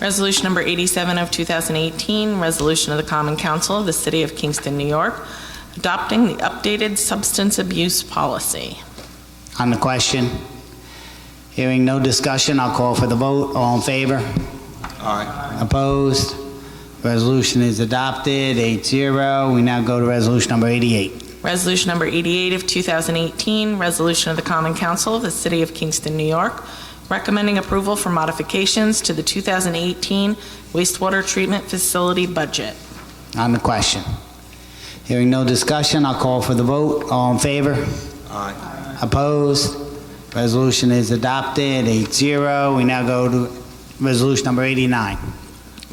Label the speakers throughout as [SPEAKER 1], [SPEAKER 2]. [SPEAKER 1] Resolution number 87 of 2018, resolution of the Common Council of the City of Kingston, New York, adopting the updated substance abuse policy.
[SPEAKER 2] On the question? Hearing no discussion, I'll call for the vote. All in favor? Aye. Opposed? Resolution is adopted, 8-0. We now go to resolution number 88.
[SPEAKER 1] Resolution number 88 of 2018, resolution of the Common Council of the City of Kingston, New York, recommending approval for modifications to the 2018 wastewater treatment facility budget.
[SPEAKER 2] On the question? Hearing no discussion, I'll call for the vote. All in favor? Aye. Opposed? Resolution is adopted, 8-0. We now go to resolution number 89.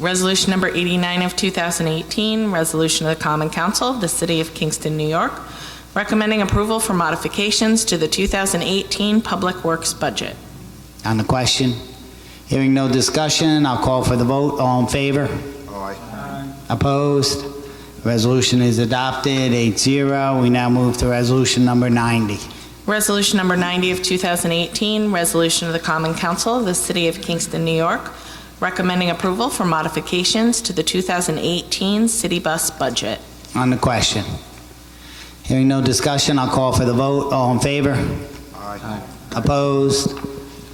[SPEAKER 1] Resolution number 89 of 2018, resolution of the Common Council of the City of Kingston, New York, recommending approval for modifications to the 2018 Public Works budget.
[SPEAKER 2] On the question? Hearing no discussion, I'll call for the vote. All in favor? Aye. Opposed? Resolution is adopted, 8-0. We now move to resolution number 90.
[SPEAKER 1] Resolution number 90 of 2018, resolution of the Common Council of the City of Kingston, New York, recommending approval for modifications to the 2018 city bus budget.
[SPEAKER 2] On the question? Hearing no discussion, I'll call for the vote. All in favor? Aye. Opposed?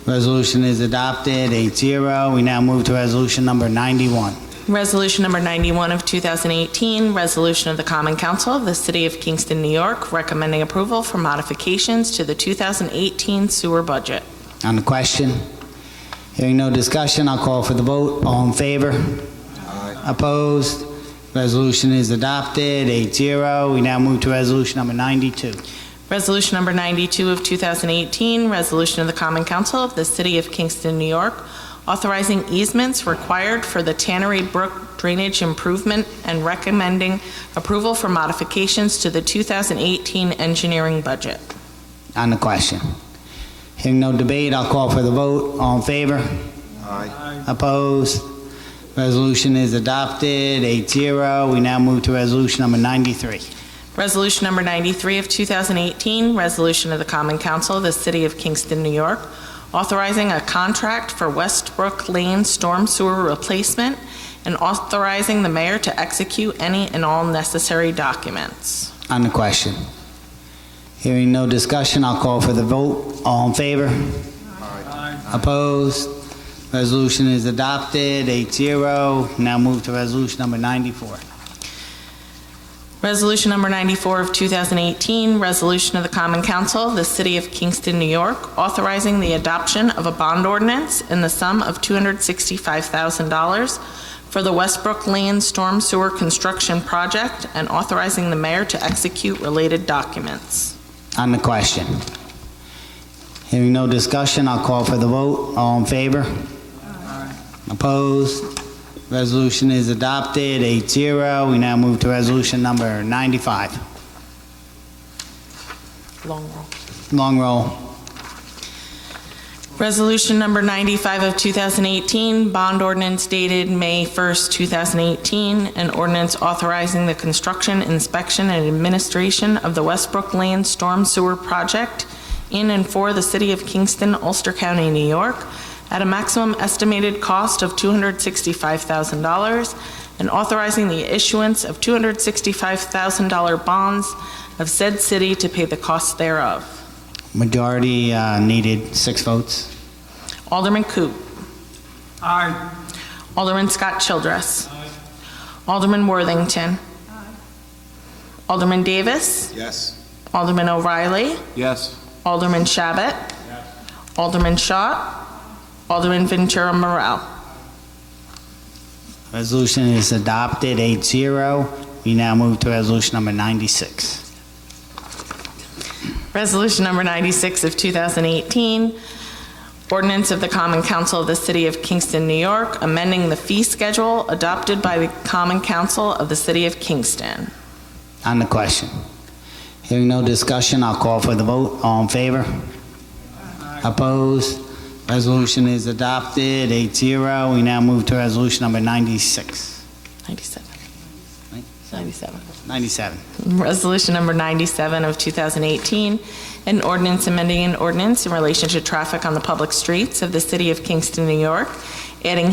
[SPEAKER 2] Resolution is adopted, 8-0. We now move to resolution number 91.
[SPEAKER 1] Resolution number 91 of 2018, resolution of the Common Council of the City of Kingston, New York, recommending approval for modifications to the 2018 sewer budget.
[SPEAKER 2] On the question? Hearing no discussion, I'll call for the vote. All in favor? Aye. Opposed? Resolution is adopted, 8-0. We now move to resolution number 92.
[SPEAKER 1] Resolution number 92 of 2018, resolution of the Common Council of the City of Kingston, New York, authorizing easements required for the Tannery Brook drainage improvement and recommending approval for modifications to the 2018 engineering budget.
[SPEAKER 2] On the question? Hearing no debate, I'll call for the vote. All in favor? Aye. Opposed? Resolution is adopted, 8-0. We now move to resolution number 93.
[SPEAKER 1] Resolution number 93 of 2018, resolution of the Common Council of the City of Kingston, New York, authorizing a contract for Westbrook Lane storm sewer replacement and authorizing the mayor to execute any and all necessary documents.
[SPEAKER 2] On the question? Hearing no discussion, I'll call for the vote. All in favor? Aye. Opposed? Resolution is adopted, 8-0. Now move to resolution number 94.
[SPEAKER 1] Resolution number 94 of 2018, resolution of the Common Council of the City of Kingston, New York, authorizing the adoption of a bond ordinance in the sum of $265,000 for the Westbrook Lane Storm Sewer Construction Project and authorizing the mayor to execute related documents.
[SPEAKER 2] On the question? Hearing no discussion, I'll call for the vote. All in favor? Opposed? Resolution is adopted, 8-0. We now move to resolution number 95.
[SPEAKER 1] Long roll.
[SPEAKER 2] Long roll.
[SPEAKER 1] Resolution number 95 of 2018, bond ordinance dated May 1st, 2018, an ordinance authorizing the construction, inspection, and administration of the Westbrook Lane Storm Sewer Project in and for the City of Kingston, Ulster County, New York, at a maximum estimated cost of $265,000, and authorizing the issuance of $265,000 bonds of said city to pay the cost thereof.
[SPEAKER 2] Majority uh, needed, six votes.
[SPEAKER 1] Alderman Coop. Aye. Alderman Scott Childress. Alderman Worthington. Alderman Davis.
[SPEAKER 3] Yes.
[SPEAKER 1] Alderman O'Reilly.
[SPEAKER 3] Yes.
[SPEAKER 1] Alderman Shabbat. Alderman Shaw. Alderman Ventura Morel.
[SPEAKER 2] Resolution is adopted, 8-0. We now move to resolution number 96.
[SPEAKER 1] Resolution number 96 of 2018, ordinance of the Common Council of the City of Kingston, New York, amending the fee schedule adopted by the Common Council of the City of Kingston.
[SPEAKER 2] On the question. Hearing no discussion, I'll call for the vote. All in favor? Opposed? Resolution is adopted, 8-0. We now move to resolution number 96.
[SPEAKER 1] 97.
[SPEAKER 2] Right.
[SPEAKER 1] 97.
[SPEAKER 2] 97.
[SPEAKER 1] Resolution number 97 of 2018, an ordinance amending an ordinance in relation to traffic on the public streets of the city of Kingston, New York, adding